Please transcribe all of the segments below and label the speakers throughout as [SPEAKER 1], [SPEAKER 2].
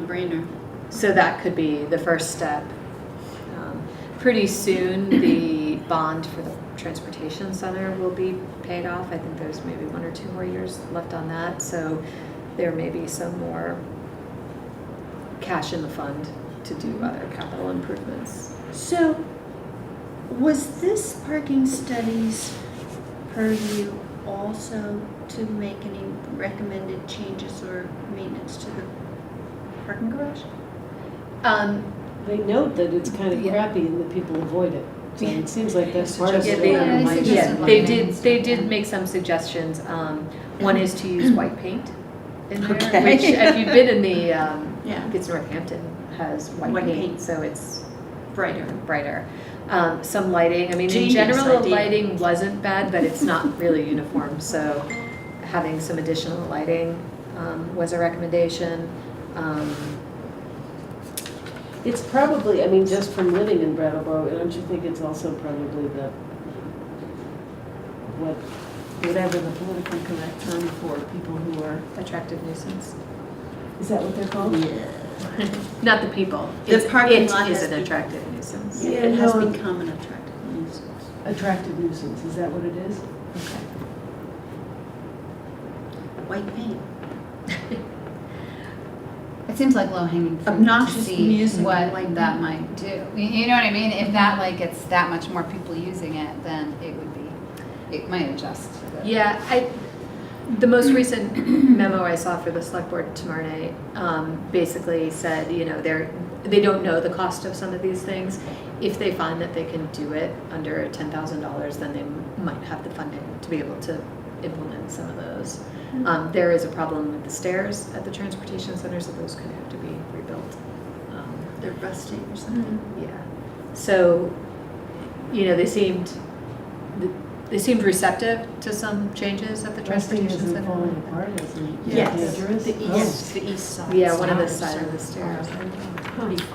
[SPEAKER 1] no-brainer. So that could be the first step. Um, Pretty soon, the bond for the transportation center will be paid off. I think there's maybe one or two more years left on that, so there may be some more cash in the fund to do other capital improvements.
[SPEAKER 2] So, was this parking studies purview also to make any recommended changes or maintenance to the parking garage?
[SPEAKER 1] Um,
[SPEAKER 3] They note that it's kind of
[SPEAKER 1] Yeah.
[SPEAKER 3] crappy and that people avoid it. So it seems like that's part of
[SPEAKER 1] Yeah,
[SPEAKER 3] it.
[SPEAKER 1] they,
[SPEAKER 3] and it might
[SPEAKER 4] suggested
[SPEAKER 1] yeah,
[SPEAKER 3] just-
[SPEAKER 1] they
[SPEAKER 4] lighting
[SPEAKER 1] did,
[SPEAKER 4] and
[SPEAKER 1] they
[SPEAKER 4] stuff,
[SPEAKER 1] did
[SPEAKER 4] yeah.
[SPEAKER 1] make some suggestions. Um, one is to use white paint in there,
[SPEAKER 2] Okay.
[SPEAKER 1] which if you've been in the, um, I
[SPEAKER 2] Yeah,
[SPEAKER 1] think it's Northampton has white
[SPEAKER 2] White
[SPEAKER 1] paint,
[SPEAKER 2] paint.
[SPEAKER 1] so it's
[SPEAKER 2] brighter.
[SPEAKER 1] brighter. Um, some lighting, I mean, in
[SPEAKER 2] Genius
[SPEAKER 1] general, the
[SPEAKER 2] idea.
[SPEAKER 1] lighting wasn't bad, but it's not really uniform, so having some additional lighting, um, was a recommendation. Um,
[SPEAKER 3] It's probably, I mean, just from living in Brattleboro, don't you think it's also probably the, what, whatever the politically correct term for people who are,
[SPEAKER 1] attractive nuisance,
[SPEAKER 3] is that what they're
[SPEAKER 2] Oh,
[SPEAKER 3] called?
[SPEAKER 2] Yeah.
[SPEAKER 1] not the people.
[SPEAKER 2] The
[SPEAKER 1] It's-
[SPEAKER 2] parking lot
[SPEAKER 1] It is
[SPEAKER 2] has
[SPEAKER 1] an
[SPEAKER 2] be-
[SPEAKER 1] attractive nuisance.
[SPEAKER 3] Yeah,
[SPEAKER 2] It has
[SPEAKER 3] no.
[SPEAKER 2] become an attractive nuisance.
[SPEAKER 3] Attractive nuisance, is that what it is?
[SPEAKER 1] Okay.
[SPEAKER 2] White paint.
[SPEAKER 4] It seems like low hanging fruit to
[SPEAKER 2] Obnoxious
[SPEAKER 4] see
[SPEAKER 2] music,
[SPEAKER 4] what
[SPEAKER 2] like-
[SPEAKER 4] that might do. You- You know what I mean? If that like gets that much more people using it, then it would be, it might adjust. to the-
[SPEAKER 1] Yeah, I, the most recent memo I saw for the select board tomorrow night, um, basically said, you know, they're, they don't know the cost of some of these things. If they find that they can do it under ten thousand dollars, then they might have the funding to be able to implement some of those. Um, there is a problem with the stairs at the transportation center, so those could have to be rebuilt. Um,
[SPEAKER 2] They're rusting or something.
[SPEAKER 1] yeah. So, you know, they seemed, they seemed receptive to some changes at the
[SPEAKER 3] Trusting
[SPEAKER 1] transportation
[SPEAKER 3] isn't
[SPEAKER 1] center.
[SPEAKER 3] falling apart, is it?
[SPEAKER 2] Yes,
[SPEAKER 3] Dangerous?
[SPEAKER 2] the
[SPEAKER 3] Oh.
[SPEAKER 2] east, the east side.
[SPEAKER 1] Yeah, one of the
[SPEAKER 2] Sorry,
[SPEAKER 1] side of the
[SPEAKER 2] sorry.
[SPEAKER 1] stairs.
[SPEAKER 2] Hmm.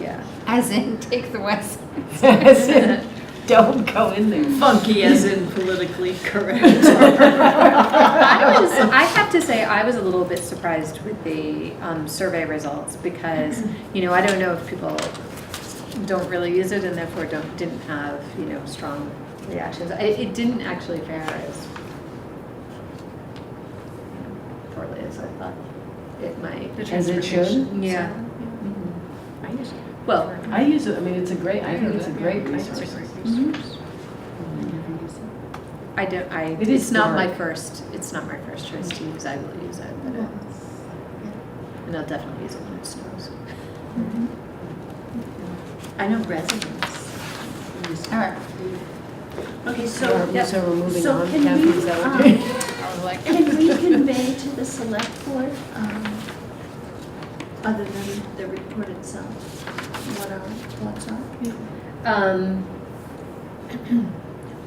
[SPEAKER 1] Yeah.
[SPEAKER 4] As in, take the west.
[SPEAKER 3] As in, Oh. Don't go in there.
[SPEAKER 2] Funky as in politically correct.
[SPEAKER 1] I was, I have to say, I was a little bit surprised with the um, survey results because, you know, I don't know if people don't really use it and therefore don't, didn't have, you know, strong reactions. It, it didn't actually fare as poorly as I thought it might.
[SPEAKER 3] The As it should? transportation.
[SPEAKER 1] Yeah. Mhm. Well,
[SPEAKER 3] I use it, I mean, it's a great, I think it's a great resource.
[SPEAKER 4] Mm-hmm.
[SPEAKER 1] I don't, I,
[SPEAKER 3] It
[SPEAKER 1] it's
[SPEAKER 3] is
[SPEAKER 1] not my
[SPEAKER 3] dark.
[SPEAKER 1] first, it's not my first choice to use, I will use it, but it's, and I'll definitely use it when it snows.
[SPEAKER 2] I know residents. use it.
[SPEAKER 4] All right.
[SPEAKER 2] Okay, so,
[SPEAKER 3] So, so we're moving
[SPEAKER 2] so
[SPEAKER 3] on,
[SPEAKER 2] can
[SPEAKER 3] Kathy,
[SPEAKER 2] we,
[SPEAKER 3] is that
[SPEAKER 2] um,
[SPEAKER 3] what you're?
[SPEAKER 4] I was like,
[SPEAKER 2] Can we convey to the select board, um, other than the report itself, what our thoughts are?
[SPEAKER 1] Um,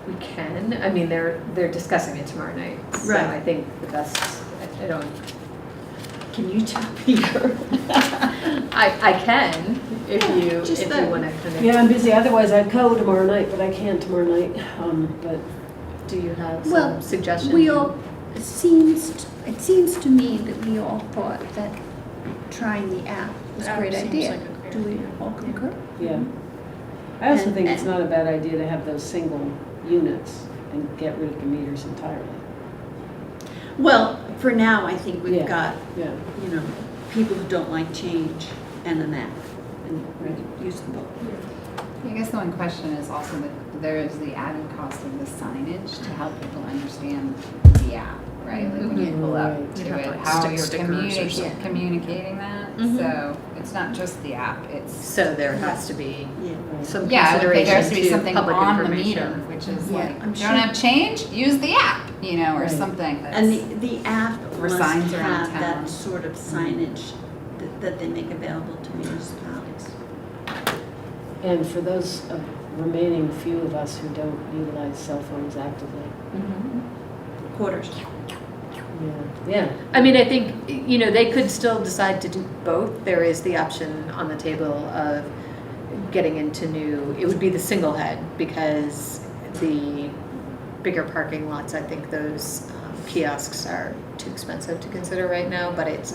[SPEAKER 1] we can, I mean, they're, they're discussing it tomorrow night, so
[SPEAKER 2] Right.
[SPEAKER 1] I think the best, I- I don't,
[SPEAKER 2] Can you tell Peter?
[SPEAKER 1] I, I can, if
[SPEAKER 2] Yeah,
[SPEAKER 1] you, if
[SPEAKER 2] just
[SPEAKER 1] you
[SPEAKER 2] that.
[SPEAKER 1] wanna kind
[SPEAKER 3] Yeah, I'm busy, otherwise I'd go tomorrow night, but I can't tomorrow night, um, but.
[SPEAKER 1] of, do you have some
[SPEAKER 2] Well,
[SPEAKER 1] suggestions?
[SPEAKER 2] We all, it seems, it seems to me that we all thought that trying the app was a great idea. Do we all concur?
[SPEAKER 3] Yeah. I also
[SPEAKER 2] And-
[SPEAKER 3] think it's not a bad idea to have those single units and get rid of the meters entirely.
[SPEAKER 2] Well, for now, I think we've
[SPEAKER 3] Yeah.
[SPEAKER 2] got,
[SPEAKER 3] Yeah.
[SPEAKER 2] you know, people who don't like change and an app, and we
[SPEAKER 3] Right.
[SPEAKER 2] could use them both.
[SPEAKER 4] I guess the one question is also that there is the added cost of the signage to help people understand the app, right? Like when you pull up
[SPEAKER 3] Mhm.
[SPEAKER 4] to
[SPEAKER 5] You have,
[SPEAKER 4] it,
[SPEAKER 5] like,
[SPEAKER 4] how
[SPEAKER 5] stick
[SPEAKER 4] you're
[SPEAKER 5] stickers or
[SPEAKER 4] communicating,
[SPEAKER 5] something.
[SPEAKER 4] communicating that.
[SPEAKER 2] Mm-hmm.
[SPEAKER 1] Mhm.
[SPEAKER 4] So it's not just the app, it's,
[SPEAKER 1] So there has to be
[SPEAKER 2] Yeah.
[SPEAKER 3] right.
[SPEAKER 1] some
[SPEAKER 4] yeah, I would think there has
[SPEAKER 1] consideration
[SPEAKER 4] to be
[SPEAKER 1] to
[SPEAKER 4] something
[SPEAKER 1] public
[SPEAKER 4] on the meter,
[SPEAKER 1] information.
[SPEAKER 4] which is
[SPEAKER 2] Yeah,
[SPEAKER 4] like,
[SPEAKER 2] I'm
[SPEAKER 4] don't
[SPEAKER 2] sure-
[SPEAKER 4] have change, use the app, you know, or
[SPEAKER 3] Right.
[SPEAKER 4] something that's.
[SPEAKER 2] And the, the app
[SPEAKER 4] Or
[SPEAKER 2] must
[SPEAKER 4] signs around
[SPEAKER 2] have that
[SPEAKER 4] town.
[SPEAKER 2] sort of signage that, that they make available to municipalities.
[SPEAKER 3] And for those uh, remaining few of us who don't utilize cell phones actively.
[SPEAKER 1] Mhm.
[SPEAKER 2] Quarters.
[SPEAKER 3] Yeah. Yeah,
[SPEAKER 1] I mean, I think, you know, they could still decide to do both. There is the option on the table of getting into new, it would be the single head because the bigger parking lots, I think those um, kiosks are too expensive to consider right now, but it's not.